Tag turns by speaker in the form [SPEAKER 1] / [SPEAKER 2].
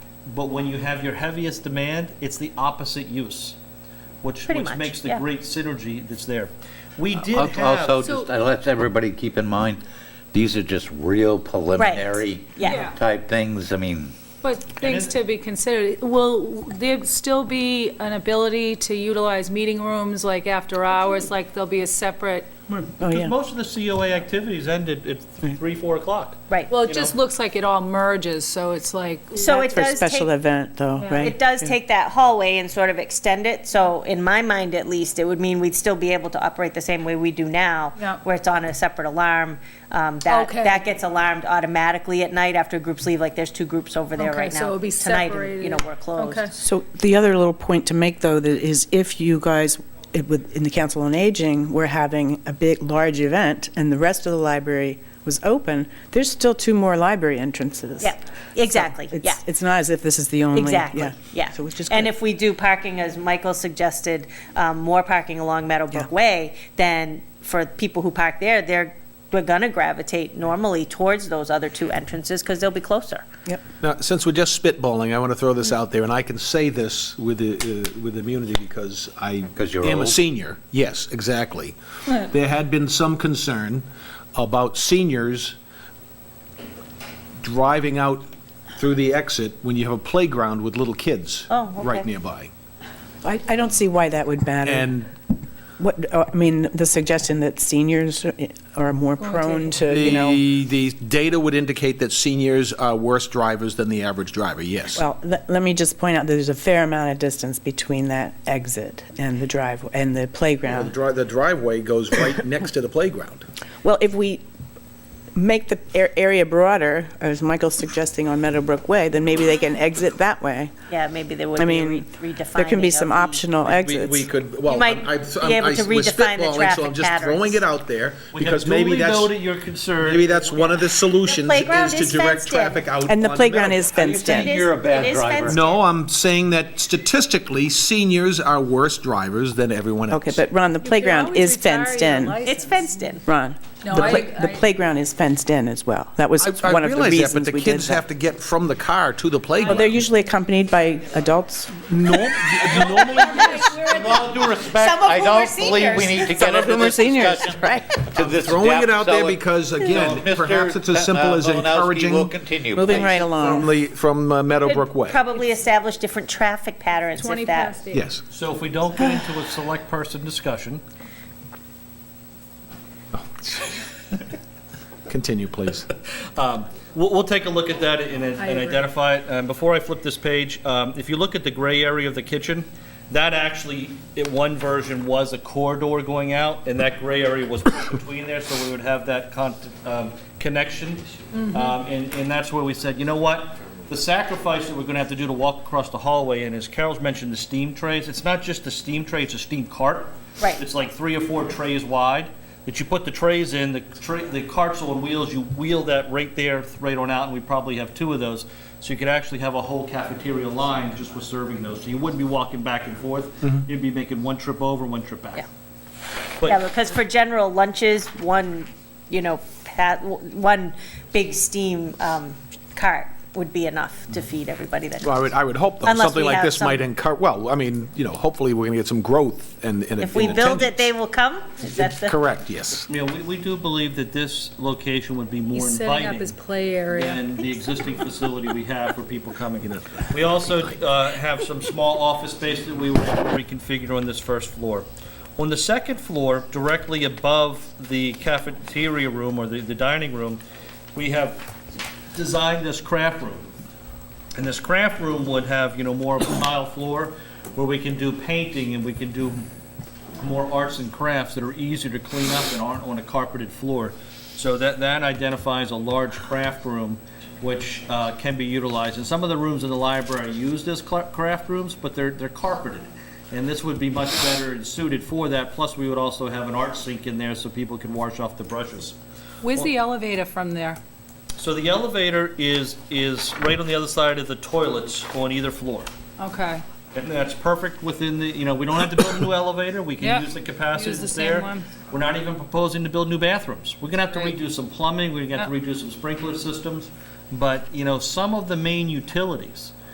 [SPEAKER 1] But when you have your heaviest demand, it's the opposite use, which,
[SPEAKER 2] Pretty
[SPEAKER 1] which
[SPEAKER 2] much,
[SPEAKER 1] makes the
[SPEAKER 2] yeah.
[SPEAKER 1] great synergy that's there. We did
[SPEAKER 3] Al- Uh, Also,
[SPEAKER 1] have,
[SPEAKER 3] just, uh, let's everybody keep in mind, these are just real preliminary
[SPEAKER 2] Yeah.
[SPEAKER 3] type things. I mean,
[SPEAKER 4] But things
[SPEAKER 1] it-
[SPEAKER 4] to be considered, will there still be an ability to utilize meeting rooms, like after hours, like there'll be a separate?
[SPEAKER 5] Oh,
[SPEAKER 2] yeah.
[SPEAKER 1] because most of the COA activities ended at three, four o'clock.
[SPEAKER 2] Right.
[SPEAKER 4] Well,
[SPEAKER 1] You
[SPEAKER 4] it just
[SPEAKER 1] know.
[SPEAKER 4] looks like it all merges, so it's like,
[SPEAKER 2] So
[SPEAKER 6] That's
[SPEAKER 2] it
[SPEAKER 6] for
[SPEAKER 2] does
[SPEAKER 6] special
[SPEAKER 2] take,
[SPEAKER 6] event, though,
[SPEAKER 4] Yeah.
[SPEAKER 6] right?
[SPEAKER 2] it does take that hallway and sort of extend it. So in my mind, at least, it would mean we'd still be able to operate the same way we do now,
[SPEAKER 4] Yeah.
[SPEAKER 2] where it's on a separate alarm. Um, That,
[SPEAKER 4] Okay.
[SPEAKER 2] that gets alarmed automatically at night after groups leave, like there's two groups over there
[SPEAKER 4] Okay,
[SPEAKER 2] right now.
[SPEAKER 4] so it'll be
[SPEAKER 2] Tonight, and, You know,
[SPEAKER 4] separated.
[SPEAKER 2] we're
[SPEAKER 4] okay.
[SPEAKER 2] closed.
[SPEAKER 6] So the other little point to make, though, that is if you guys, it would- in the Council on Aging, were having a big, large event, and the rest of the library was open, there's still two more library entrances.
[SPEAKER 2] Yeah, exactly,
[SPEAKER 6] It's-
[SPEAKER 2] yeah.
[SPEAKER 6] It's not as if this is the only.
[SPEAKER 2] Exactly, yeah.
[SPEAKER 6] So which is
[SPEAKER 2] And
[SPEAKER 6] good.
[SPEAKER 2] if we do parking, as Michael suggested, um, more parking along Meadowbrook
[SPEAKER 6] Yeah.
[SPEAKER 2] Way, then for people who park there, they're, we're gonna gravitate normally towards those other two entrances, because they'll be closer.
[SPEAKER 6] Yep.
[SPEAKER 5] Now, since we're just spitballing, I want to throw this out there, and I can say this with, uh, with immunity because I
[SPEAKER 3] 'Cause you're
[SPEAKER 5] am a
[SPEAKER 3] old.
[SPEAKER 5] senior. Yes, exactly. There had been some concern about seniors driving out through the exit when you have a playground with little kids
[SPEAKER 2] Oh,
[SPEAKER 5] right
[SPEAKER 2] okay.
[SPEAKER 5] nearby.
[SPEAKER 6] I I don't see why that would matter.
[SPEAKER 5] And
[SPEAKER 6] What, uh, I mean, the suggestion that seniors are- are more prone
[SPEAKER 5] uh,
[SPEAKER 6] to, you know,
[SPEAKER 5] the, the data would indicate that seniors are worse drivers than the average driver, yes.
[SPEAKER 6] well, le- let me just point out, there's a fair amount of distance between that exit and the drive, and the
[SPEAKER 5] The
[SPEAKER 6] playground.
[SPEAKER 5] dri- the driveway goes right next to the playground.
[SPEAKER 6] Well, if we make the a- area broader, as Michael's suggesting on Meadowbrook Way, then maybe they can exit that way.
[SPEAKER 2] Yeah, maybe there would
[SPEAKER 6] I
[SPEAKER 2] be a
[SPEAKER 6] mean,
[SPEAKER 2] re- redefining.
[SPEAKER 6] there can be
[SPEAKER 2] of
[SPEAKER 6] some
[SPEAKER 2] the-
[SPEAKER 6] optional
[SPEAKER 5] We-
[SPEAKER 6] exits.
[SPEAKER 5] We could, well,
[SPEAKER 2] You might
[SPEAKER 5] I'm, I'm,
[SPEAKER 2] be able
[SPEAKER 5] I-
[SPEAKER 2] to
[SPEAKER 5] we're
[SPEAKER 2] redefine the
[SPEAKER 5] spitballing, so I'm
[SPEAKER 2] traffic
[SPEAKER 5] just throwing
[SPEAKER 2] patterns.
[SPEAKER 5] it out there,
[SPEAKER 1] We have
[SPEAKER 5] because maybe
[SPEAKER 1] duly noted
[SPEAKER 5] that's,
[SPEAKER 1] your concern.
[SPEAKER 5] maybe that's one of the solutions
[SPEAKER 2] playground
[SPEAKER 5] is to
[SPEAKER 2] is
[SPEAKER 5] direct
[SPEAKER 2] fenced in.
[SPEAKER 5] traffic out.
[SPEAKER 6] And the
[SPEAKER 5] on
[SPEAKER 6] playground
[SPEAKER 5] Meadow.
[SPEAKER 6] is fenced
[SPEAKER 2] It
[SPEAKER 6] in.
[SPEAKER 2] is-
[SPEAKER 3] You're a bad
[SPEAKER 2] it is
[SPEAKER 3] driver.
[SPEAKER 2] fenced
[SPEAKER 5] No, I'm saying that statistically, seniors are worse drivers than everyone else.
[SPEAKER 6] Okay, but Ron, the playground is fenced in.
[SPEAKER 2] in. It's fenced in.
[SPEAKER 6] Ron, the
[SPEAKER 4] No, I-
[SPEAKER 6] pla- the
[SPEAKER 4] I-
[SPEAKER 6] playground is fenced in as well. That was
[SPEAKER 5] I, I
[SPEAKER 6] one of the
[SPEAKER 5] realize that, but
[SPEAKER 6] reasons
[SPEAKER 5] the
[SPEAKER 6] we did
[SPEAKER 5] kids have
[SPEAKER 6] that.
[SPEAKER 5] to get from the car to
[SPEAKER 6] Well,
[SPEAKER 5] the
[SPEAKER 6] they're
[SPEAKER 5] playground.
[SPEAKER 6] usually accompanied by adults.
[SPEAKER 1] Normally,
[SPEAKER 3] with all due respect,
[SPEAKER 2] Some of
[SPEAKER 3] I
[SPEAKER 2] whom are
[SPEAKER 3] don't believe we need to get
[SPEAKER 6] Some of
[SPEAKER 3] into
[SPEAKER 6] whom are
[SPEAKER 3] this
[SPEAKER 6] seniors,
[SPEAKER 3] discussion
[SPEAKER 6] right?
[SPEAKER 3] to this
[SPEAKER 5] Throwing it
[SPEAKER 3] depth,
[SPEAKER 5] out
[SPEAKER 3] so
[SPEAKER 5] there
[SPEAKER 3] it-
[SPEAKER 5] because,
[SPEAKER 3] so
[SPEAKER 5] again,
[SPEAKER 3] Mr.
[SPEAKER 5] perhaps it's as simple
[SPEAKER 3] uh,
[SPEAKER 5] as
[SPEAKER 3] Malinowski will
[SPEAKER 5] encouraging
[SPEAKER 3] continue,
[SPEAKER 6] Moving
[SPEAKER 3] please.
[SPEAKER 6] right along.
[SPEAKER 5] from the, from uh, Meadowbrook Way.
[SPEAKER 2] Probably establish different traffic patterns
[SPEAKER 4] Twenty
[SPEAKER 2] if that.
[SPEAKER 4] past eight.
[SPEAKER 5] Yes.
[SPEAKER 1] so if we don't get into a select person discussion,
[SPEAKER 5] Continue, please.
[SPEAKER 1] We'll, we'll take a look at that and, and
[SPEAKER 4] agree.
[SPEAKER 1] identify it. Um, before I flip this page, um, if you look at the gray area of the kitchen, that actually, in one version, was a corridor going out, and that gray area was between there, so we would have that con- um, connection.
[SPEAKER 4] Mm-hmm.
[SPEAKER 1] Um, and, and that's where we said, you know what? The sacrifice that we're going to have to do to walk across the hallway, and as Carol's mentioned, the steam trays, it's not just the steam tray, it's a steam cart.
[SPEAKER 2] Right.
[SPEAKER 1] It's like three or four trays wide that you put the trays in, the tra the carts on wheels, you wheel that right there, right on out, and we probably have two of those. So you could actually have a whole cafeteria line just with serving those. So you wouldn't be walking back and forth.
[SPEAKER 4] Mm-hmm.
[SPEAKER 1] You'd be making one trip over, one trip back.
[SPEAKER 2] Yeah.
[SPEAKER 1] But-
[SPEAKER 2] Yeah, because for general lunches, one, you know, pat, one big steam, um, cart would be enough to feed everybody that.
[SPEAKER 5] Well, I would, I would hope, though,
[SPEAKER 2] Unless
[SPEAKER 5] something
[SPEAKER 2] we
[SPEAKER 5] like
[SPEAKER 2] have
[SPEAKER 5] this might
[SPEAKER 2] some-
[SPEAKER 5] encourage, well, I mean, you know, hopefully, we're going to get some growth and and
[SPEAKER 2] If we
[SPEAKER 5] and
[SPEAKER 2] build it,
[SPEAKER 5] attendance.
[SPEAKER 2] they will come? Is that the?
[SPEAKER 5] Correct, yes.
[SPEAKER 1] You know, we, we do believe that this location would be more
[SPEAKER 4] he's setting up
[SPEAKER 1] inviting
[SPEAKER 4] his play area.
[SPEAKER 1] than the existing facility we have for people coming in. We also uh, have some small office space that we will reconfigure on this first floor. On the second floor, directly above the cafeteria room or the the dining room, we have designed this craft room. And this craft room would have, you know, more of a tile floor where we can do painting and we can do more arts and crafts that are easier to clean up and aren't on a carpeted floor. So that, that identifies a large craft room which uh, can be utilized. And some of the rooms in the library are used as cla- craft rooms, but they're, they're carpeted. And this would be much better and suited for that. Plus, we would also have an art sink in there so people can wash off the brushes.
[SPEAKER 4] Where's the elevator from there?
[SPEAKER 1] So the elevator is, is right on the other side of the toilets on either floor.
[SPEAKER 4] Okay,
[SPEAKER 1] And that's perfect within the, you know, we don't have to build a new elevator, we
[SPEAKER 4] Yep.
[SPEAKER 1] can use the capacity
[SPEAKER 4] Use the
[SPEAKER 1] that's
[SPEAKER 4] same
[SPEAKER 1] there.
[SPEAKER 4] one.
[SPEAKER 1] We're not even proposing to build new bathrooms. We're gonna have to
[SPEAKER 4] Right.
[SPEAKER 1] redo some plumbing, we're gonna have to redo some sprinkler systems. But, you know, some of the main utilities